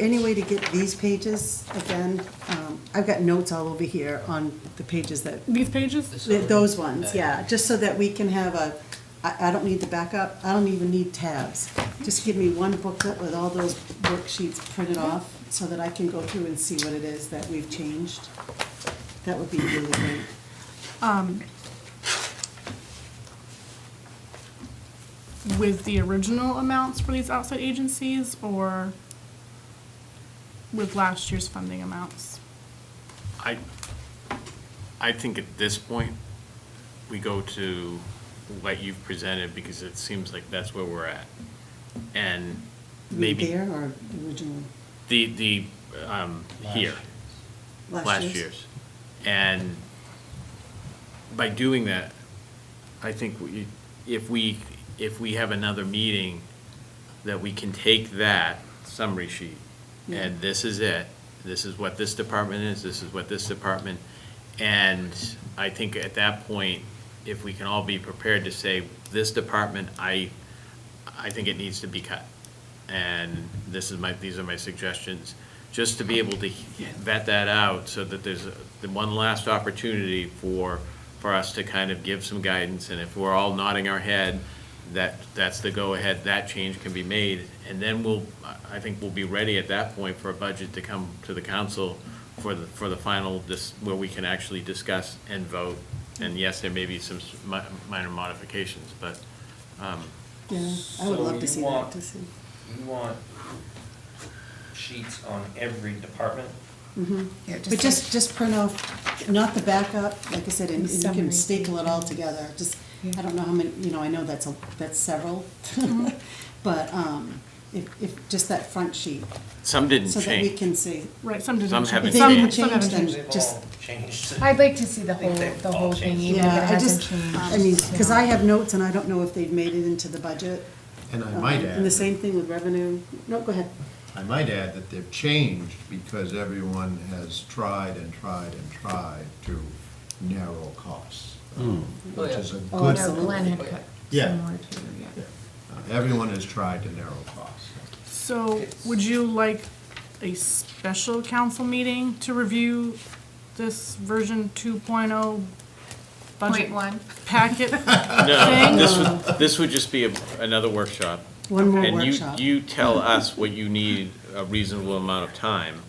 any way to get these pages again? Um, I've got notes all over here on the pages that, These pages? th- those ones, yeah, just so that we can have a, I, I don't need the backup, I don't even need tabs. Just give me one booklet with all those worksheets printed off so that I can go through and see what it is that we've changed. That would be really great. um, With the original amounts for these outside agencies or with last year's funding amounts? I, I think at this point, we go to what you've presented, because it seems like that's where we're at. And maybe There or original? the, the, um, here, last year's. And by doing that, I think we, if we, if we have another meeting, that we can take that summary sheet, and this is it, this is what this department is, this is what this department, and I think at that point, if we can all be prepared to say, this department, I, I think it needs to be cut, and this is my, these are my suggestions, just to be able to vet that out, so that there's a- the one last opportunity for, for us to kind of give some guidance, and if we're all nodding our head, that, that's the go-ahead, that change can be made, and then we'll, I I think we'll be ready at that point for a budget to come to the council for the, for the final, dis where we can actually discuss and vote, and yes, there may be some s- mi- minor modifications, but, um, Yeah, I would So love you to see that, want- to see. You want sheets on every department? Yeah, But just, just print off, not the backup, like I said, and The and you can summary. staple it all together, just, I Yeah. don't know how many, you know, I know that's a, that's several. Mm-hmm. But, um, if, if, just that front sheet, some didn't so that we change. can see. Right, some didn't. Some change. haven't changed. Some haven't They didn't changed. They've just- all changed. I'd like to see the think whole, they've the all whole thing, changed. even if it Yeah, I hasn't just, changed. uh, I mean, because you know. I have notes and I don't know if they've made it into the budget. And I Um, might And the add, same thing with revenue, no, go ahead, I might add that they've changed because everyone has tried and tried and tried to narrow costs, um, Oh, which yeah. is a Oh, good No, absolutely. Glenn had Oh, yeah. cut Yeah. similar to, yeah. Yeah. Uh, Everyone has tried to narrow costs. So would you like a special council meeting to review this version 2.0 budget Point one. packet? No, this would, this would just be a- another workshop. one more And you, workshop. you tell us what you need a reasonable amount of time.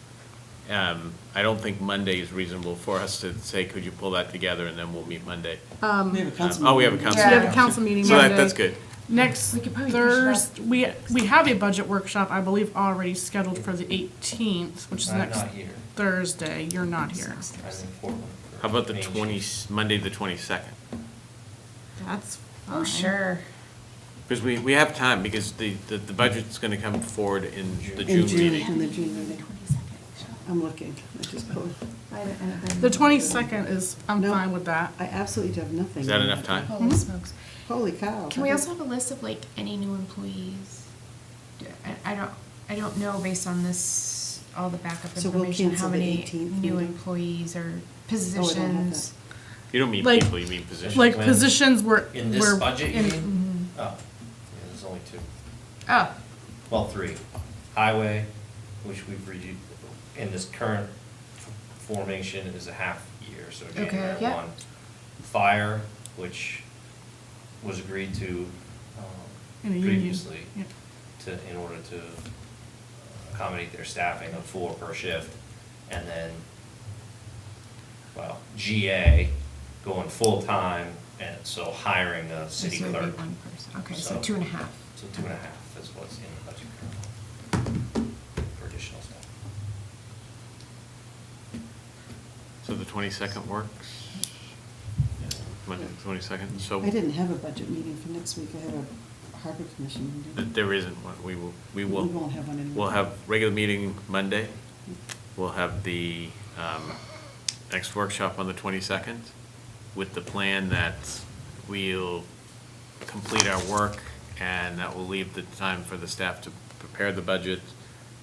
Um, I don't think Monday is reasonable for us to say, could you pull that together and then we'll meet Monday. We have a Um, council Oh, we have a meeting. council. Yeah. We have a meeting. council meeting So that, Monday. that's good. Next We could probably push it Thursday, we, we have a budget workshop, I believe, already scheduled for the eighteenth, which is I'm next not here. Thursday. You're not here. I'm in Portland. for How about the Main Street. twenty, Monday, the twenty-second? That's fine. Oh, sure. Because we, we have time, because the, the, the budget's gonna come forward in the In June June, meeting. in the June meeting, I'm looking, I just, pulled- The twenty-second is, I'm No. fine with that. I absolutely have nothing. Is that enough time? Holy smokes. Holy cow. Mm-hmm. Oh, Can we I also have a list of like any new employees? Do- I, I don't, I don't know based on this, all the backup So we'll information, cancel how the many 18th new meeting. employees or don't have that. positions. You don't mean Like- people, you mean positions. Like When- positions were. In this were budget, you in- mean? Oh, yeah, there's only two. Oh, Well, three. Highway, which we've reviewed, in this current formation is a half year, so Okay, January yeah. one. Fire, which was agreed to um, in a union. previously Yeah. to, in order to accommodate their staffing of four per shift. And then, well, GA going full-time, and so hiring a so city it'd be clerk. one person. Okay, so So- two and a half. So two and a half is what's in the budget currently for additional staff. So the twenty-second works? Monday, the twenty-second, so. I didn't have a budget meeting for next week, I have a harbor commission Th- meeting. There isn't one. We will, we will. We won't have one anymore. We'll have regular meeting Monday. Mm. We'll have the um, next workshop on the 22nd with the plan that we'll complete our work and that will leave the time for the staff to prepare the budget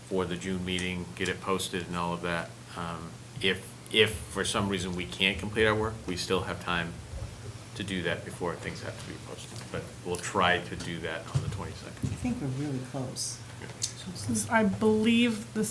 for the June meeting, get it posted and all of that. Um, If, if for some reason we can't complete our work, we still have time to do that before things have to be posted. But we'll try to do that on the 22nd. I think we're really close. This is- I believe the